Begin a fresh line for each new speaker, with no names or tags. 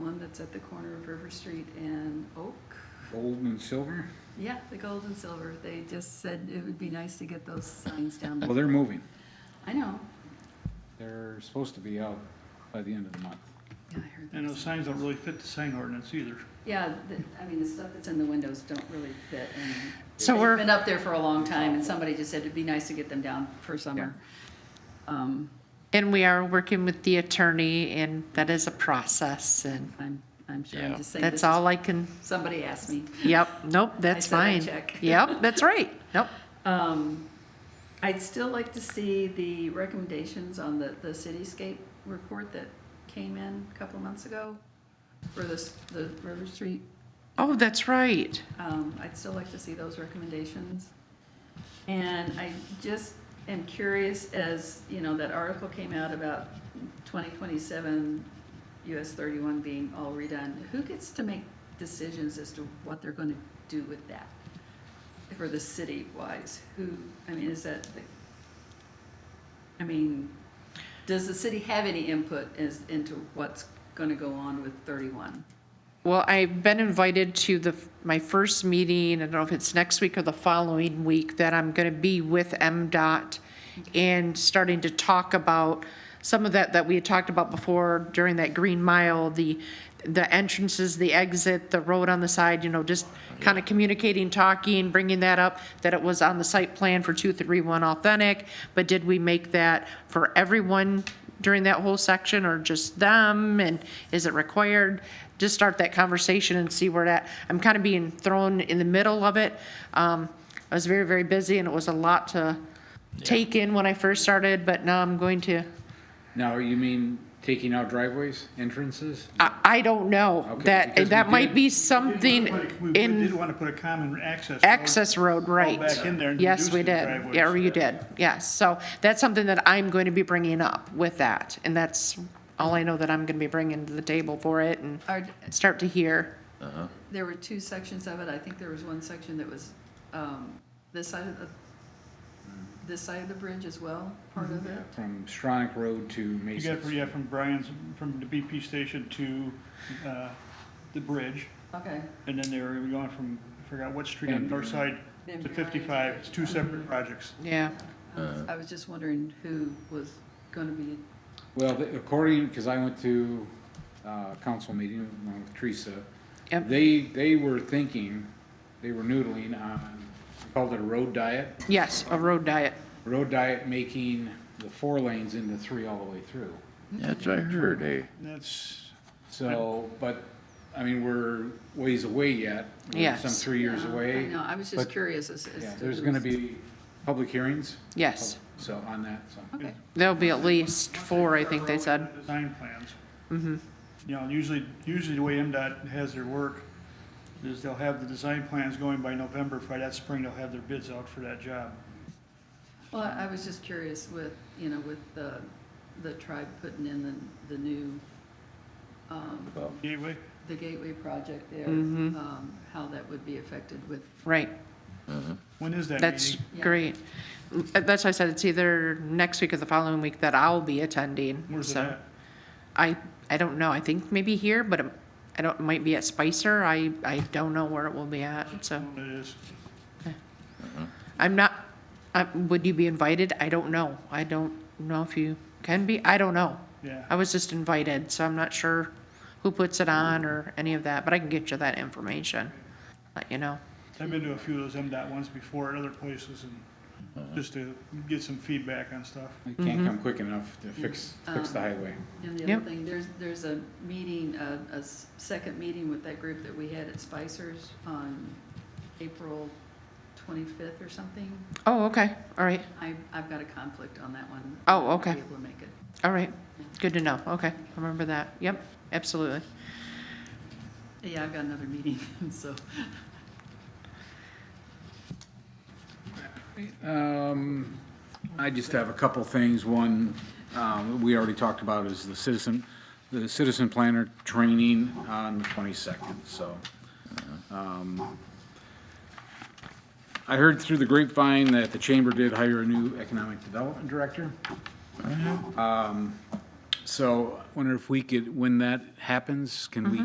It's at the corner of River Street and Oak.
Gold and silver?
Yeah, the gold and silver. They just said it would be nice to get those signs down.
Well,
there.
they're moving.
I know.
They're supposed to be out by the end of the month.
Yeah, I heard
And those
that.
signs don't really fit the sign ordinance either.
Yeah, the- I mean, the stuff that's in the windows don't really fit. and
So we're-
They've been up there for a long time and somebody just said it'd be nice to get them down for summer. Um,
And we are working with the attorney and that is a process and
I'm, I'm sure, I'm
Yeah.
just saying. this
that's
is-
all I can,
Somebody asked me.
yep, nope, that's
said I'd
fine.
check.
Yep, that's right, nope.
Um, I'd still like to see the recommendations on the, the cityscape report that came in a couple months ago for this, the River Street.
Oh, that's right.
Um, I'd still like to see those recommendations. And I just am curious as, you know, that article came out about twenty twenty-seven US thirty-one being all redone. Who gets to make decisions as to what they're gonna do with that? For the city wise, who, I mean, is that, the- I mean, does the city have any input as, into what's gonna go on with thirty-one?
Well, I've been invited to the, my first meeting, I don't know if it's next week or the following week, that I'm gonna be with MDOT and starting to talk about some of that, that we had talked about before during that Green Mile, the, the entrances, the exit, the road on the side, you know, just kind of communicating, talking, bringing that up, that it was on the site plan for two, three, one authentic, but did we make that for everyone during that whole section or just them? And is it required? Just start that conversation and see where that, I'm kind of being thrown in the middle of it. Um, I was very, very busy and it was a lot to take in when I first started, but now I'm going to,
Now, you mean taking out driveways, entrances?
I, I don't know.
Okay, because
That,
we
that might
did-
be
We did wanna put
something
a- We did
in
want to put a common access. road
access road, right?
Back in there and
Yes,
reduce
we
the
did.
driveways.
Yeah, or you did, yes. So that's something that I'm going to be bringing up with that. And that's all I know that I'm going to be bringing to the table for it and
Are,
start to hear.
There were two sections of it. I think there was one section that was um, this side of the,
Mm-hmm.
this side of the bridge as well, part of it.
From Stronach Road to
You
Mason's.
got, yeah, from Brian's, from the BP station to, uh, the bridge.
Okay.
And then they were going from, I forgot what street on the north side to
Then-
fifty-five. It's two separate projects.
I
Yeah.
was- Mm-hmm.
Uh.
I was just wondering who was going to be,
Well, the- according, because I went to uh council meeting along with Teresa,
Yep.
they, they were thinking, they were noodling on, they called it a road diet.
Yes, a road diet.
Road diet making the four lanes into three all the way through.
That's what I heard, eh?
And that's,
So, but, I mean, we're ways away yet. We're
Yes.
Some three years
Yeah, I
away.
know. I was just
but-
curious as, as
Yeah,
to
there's
who
gonna
was-
be public hearings.
Yes.
So on that, so.
Okay,
There'll be at least four, I think they said. Mm-hmm.
Design plans. You know, usually, usually the way MDOT has their work is they'll have the design plans going by November. By that spring, they'll have their bids out for that job.
well, I I was just curious with, you know, with the, the tribe putting in the, the new, um,
Well,
Gateway?
the gateway project there,
Mm-hmm.
um, how that would be affected with,
Right.
When is that
That's
meeting?
Yeah.
great. Uh, That's why I said it's either next week or the following week that I'll be attending.
Where's it
so.
at?
I, I don't know. I think maybe here, but it- I don't, it might be at Spicer. I, I don't know where it will be at, so.
When it is.
I'm not, I, would you be invited? I don't know. I don't know if you can be. I don't know.
Yeah.
I was just invited, so I'm not sure who puts it on or any of that, but I can get you that information. Let you know.
I've been to a few of those MDOT ones before at other places and just to get some feedback on stuff.
It can't come quick enough to fix, fix the highway.
And the other
Yep.
thing, there's, there's a meeting, a, a s- second meeting with that group that we had at Spicer's on April twenty-fifth or something.
Oh, okay. All right.
I, I've got a conflict on that one.
Oh,
I won't
okay.
Be able to make it.
All right. Good to know. Okay. Remember that. Yep, absolutely.
Yeah, I've got another meeting, so.
Um, I just have a couple things. One, um, we already talked about is the citizen, the citizen planner training on the twenty-second, so. um, I heard through the grapevine that the chamber did hire a new economic development director. Um, So I wonder if we could, when that happens, can we